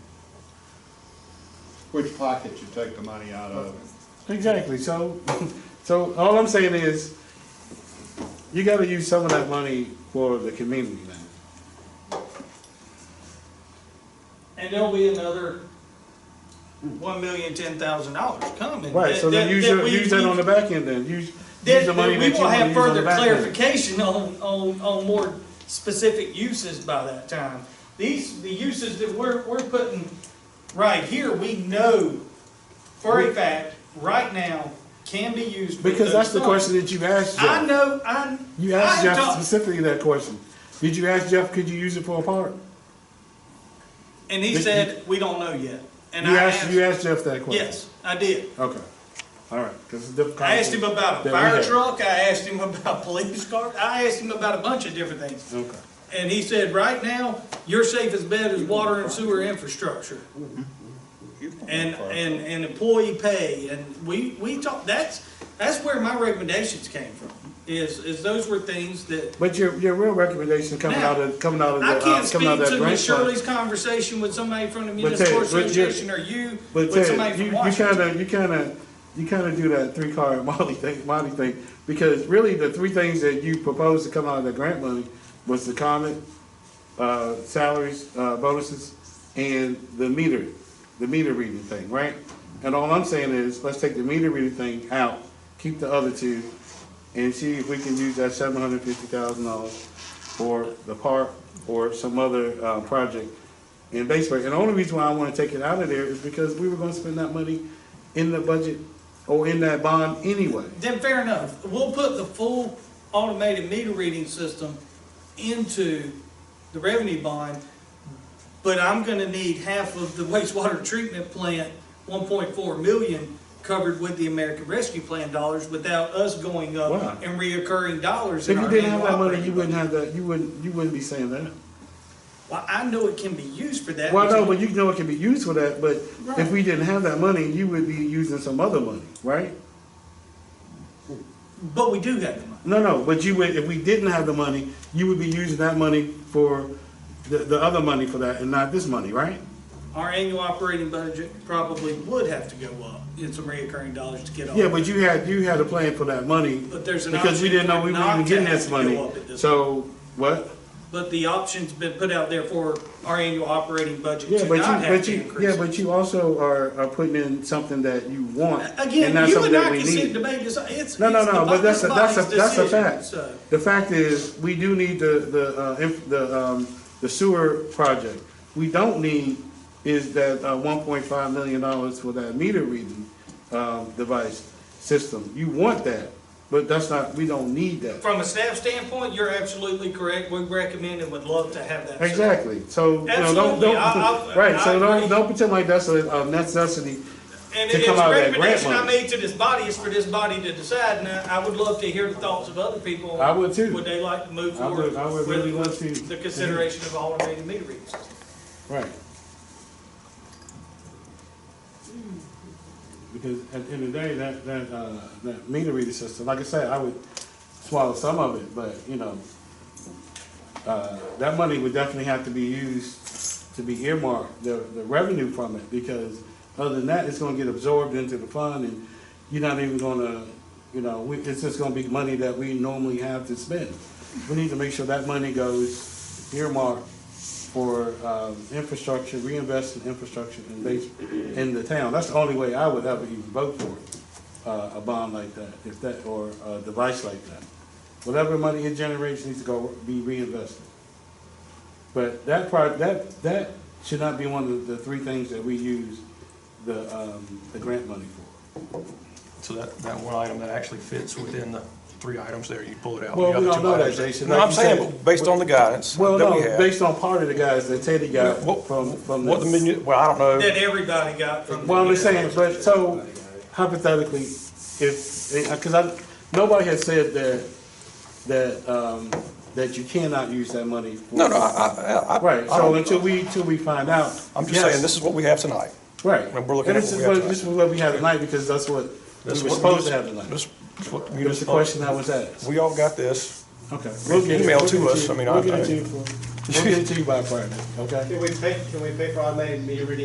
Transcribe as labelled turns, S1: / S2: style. S1: which pocket you take the money out of.
S2: Exactly, so, so all I'm saying is, you gotta use some of that money for the community now.
S3: And there'll be another one million, ten thousand dollars coming.
S2: Right, so then use, your-
S3: we-
S2: use that on the back end then, use, use
S3: That,
S2: the
S3: that
S2: money
S3: we
S2: that you
S3: will
S2: wanna
S3: have
S2: use on the
S3: further
S2: back end.
S3: clarification on, on, on more specific uses by that time. These, the uses that we're, we're putting right here, we know for a fact, right now, can be used. for
S2: Because that's
S3: those
S2: the
S3: funds.
S2: question that you asked
S3: I
S2: Jeff.
S3: know, I.
S2: You asked
S3: I
S2: Jeff
S3: talked-
S2: specifically that question. Did you ask Jeff, could you use it for a park?
S3: And he
S2: Did-
S3: said, we don't know yet. And
S2: You
S3: I
S2: asked, you asked Jeff that question?
S3: Yes, I did.
S2: Okay, all right, because it's a different.
S3: I asked him about
S2: that
S3: a
S2: we
S3: fire
S2: had.
S3: truck, I asked him about police cars, I asked him about a bunch of different things.
S2: Okay,
S3: And he said, right now, your safest bet is water and sewer infrastructure and, and, and employee pay. And we, we talked, that's, that's where my recommendations came from, is, is those were things that,
S2: but your, your real recommendation coming
S3: Now,
S2: out of, coming out of the,
S3: I
S2: uh,
S3: can't speak
S2: coming out of that
S3: to
S2: grant
S3: Miss
S2: fund.
S3: Shirley's conversation with somebody from the
S2: But Ted,
S3: municipal
S2: but you-
S3: association or you,
S2: But
S3: with somebody
S2: Ted, you,
S3: from
S2: you
S3: Washington.
S2: kinda, you kinda, you kinda do that three car Molly thing, Molly thing, because really the three things that you proposed to come out of the grant money was the comment, uh, salaries, uh, bonuses, and the meter, the meter reading thing, right? And all I'm saying is, let's take the meter reading thing out, keep the other two, and see if we can use that seven hundred fifty thousand dollars for the park or some other, uh, project in Batesburg. And the only reason why I wanna take it out of there is because we were gonna spend that money in the budget or in that bond anyway.
S3: Then fair enough. We'll put the full automated meter reading system into the revenue bond, but I'm gonna need half of the wastewater treatment plant, one point four million, covered with the American Rescue Plan dollars without us going
S2: Why?
S3: up and reoccurring dollars
S2: If
S3: in
S2: you
S3: our
S2: didn't have
S3: annual
S2: that money,
S3: operating
S2: you wouldn't
S3: budget.
S2: have that, you wouldn't, you wouldn't be saying that.
S3: Well, I know it can be used for that.
S2: Well,
S3: but
S2: no, but you know it can be used for that, but if we didn't have that money, you would be using some other money, right?
S3: But we do have the money.
S2: No, no, but you would, if we didn't have the money, you would be using that money for the, the other money for that and not this money, right?
S3: Our annual operating budget probably would have to go up in some reoccurring dollars to get all.
S2: Yeah,
S3: that.
S2: but you had, you had a plan for that money.
S3: But there's an
S2: Because we
S3: option
S2: didn't know we were
S3: not
S2: even
S3: to
S2: getting
S3: have
S2: this
S3: to go
S2: money.
S3: up at this
S2: So, what?
S3: But the option's been put out there for our annual operating budget
S2: Yeah,
S3: to
S2: but
S3: not
S2: you,
S3: have
S2: but
S3: to
S2: you, yeah,
S3: increase.
S2: but you also are, are putting in something that you want.
S3: Again,
S2: not
S3: you
S2: something
S3: and
S2: that
S3: I
S2: we
S3: can
S2: need.
S3: sit and debate this, it's.
S2: No, no,
S3: it's
S2: no,
S3: the
S2: but that's a, that's a,
S3: body's
S2: that's a
S3: decision,
S2: fact.
S3: so.
S2: The fact is, we do need the, the, uh, inf- the, um, the sewer project. We don't need is that, uh, one point five million dollars for that meter reading, um, device system. You want that, but that's not, we don't need that.
S3: From a staff standpoint, you're absolutely correct, we recommend and would love to have that.
S2: Exactly, so, you know, don't,
S3: Absolutely,
S2: don't,
S3: I- I-
S2: right,
S3: I
S2: so
S3: agree.
S2: don't, don't pretend like that's a, a necessity.
S3: And
S2: to
S3: it's a
S2: come out of that grant
S3: recommendation I
S2: money.
S3: made to this body, is for this body to decide, and I I would love to hear the thoughts of other people.
S2: I would too.
S3: Would they like to move
S2: I would-
S3: forward
S2: I would
S3: with
S2: really love to-
S3: with the consideration of automated meter readings?
S2: Right. Because at the end of the day, that, that, uh, that meter reader system, like I said, I would swallow some of it, but, you know, uh, that money would definitely have to be used to be earmarked, the, the revenue from it, because other than that, it's gonna get absorbed into the fund and you're not even gonna, you know, we, it's just gonna be money that we normally have to spend. We need to make sure that money goes earmarked for, um, infrastructure, reinvest in infrastructure in base, in the town. That's the only way I would ever even vote for it, uh, a bond like that, if that, or a device like that. Whatever money it generates needs to go be reinvested. But that part, that, that should not be one of the three things that we use the, um, the grant money for.
S4: So that, that one item that actually fits within the three items there, you pull it out.
S2: Well,
S4: the
S2: we don't
S4: other two
S2: know that,
S4: items.
S2: Jason.
S4: No,
S2: Like
S4: I'm
S2: you
S4: saying,
S2: said-
S4: but based on the guidance
S2: Well,
S4: that we
S2: no,
S4: have.
S2: based on part of the guys that Teddy got
S4: what-
S2: from, from
S4: What the
S2: this.
S4: menu, well, I don't know,
S3: That everybody got from. the
S2: Uh, Well, I'm
S3: meter
S2: just saying,
S3: readings.
S2: but so hypothetically, if, because I, nobody has said that, that, um, that you cannot use that money. for-
S4: no, no, I, I, I.
S2: Right,
S4: I
S2: so
S4: don't-
S2: until we, until we find out.
S4: I'm just
S2: yes,
S4: saying, this is what we have tonight.
S2: Right.
S4: and we're looking
S2: And
S4: at
S2: this is
S4: what we have
S2: what,
S4: to-
S2: this is what we have tonight because that's what we were
S4: That's what
S2: supposed to
S4: munis-
S2: have tonight.
S4: This is what
S2: It was the
S4: municipal-
S2: question I was asked.
S4: We all got this.
S2: Okay. we'll get it.
S4: Email
S2: We'll
S4: to
S2: get
S4: us.
S2: you-
S4: I mean,
S2: We'll
S4: I'll
S2: get it
S4: tell
S2: to
S4: you.
S2: you, for- we'll get it to you by Friday, okay?
S5: Can we pay, can we pay for automated meter reading